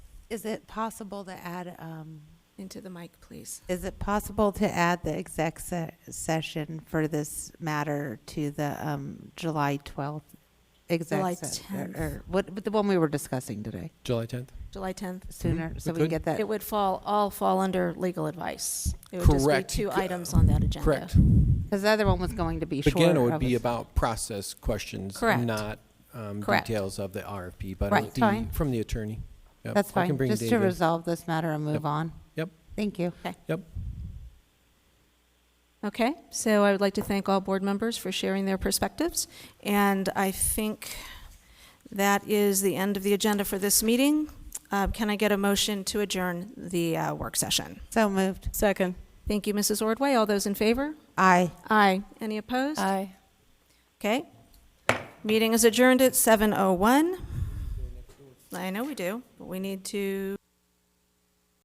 Is it possible to add, um, Into the mic, please. is it possible to add the exec se- session for this matter to the, um, July twelfth? July Exec, se- or- 10th. or, what, but the one we were discussing today, July 10th? July 10th. sooner, so we we can could. get that. Mm-hmm. It would fall, all fall under legal advice. It would just be Correct. two items on that agenda. Correct. Cause the other one was going to be shorter. Again, it would of be a- about process questions, Correct. not um, Correct. details of the RFP, but Right. it'll be Fine. from the attorney. Yep, That's I can fine, bring just to David. resolve this matter and move on. Yep. Thank you. Yep. Okay, so I would like to thank all board members for sharing their perspectives, and I think that is the end of the agenda for this meeting. Uh, Can I get a motion to adjourn the uh, work session? So moved. Second. Thank you, Mrs. Ordway. All those in favor? Aye. Aye. Any opposed? Aye. Okay. oh Meeting is adjourned at 7:01. I know we do, but we need to.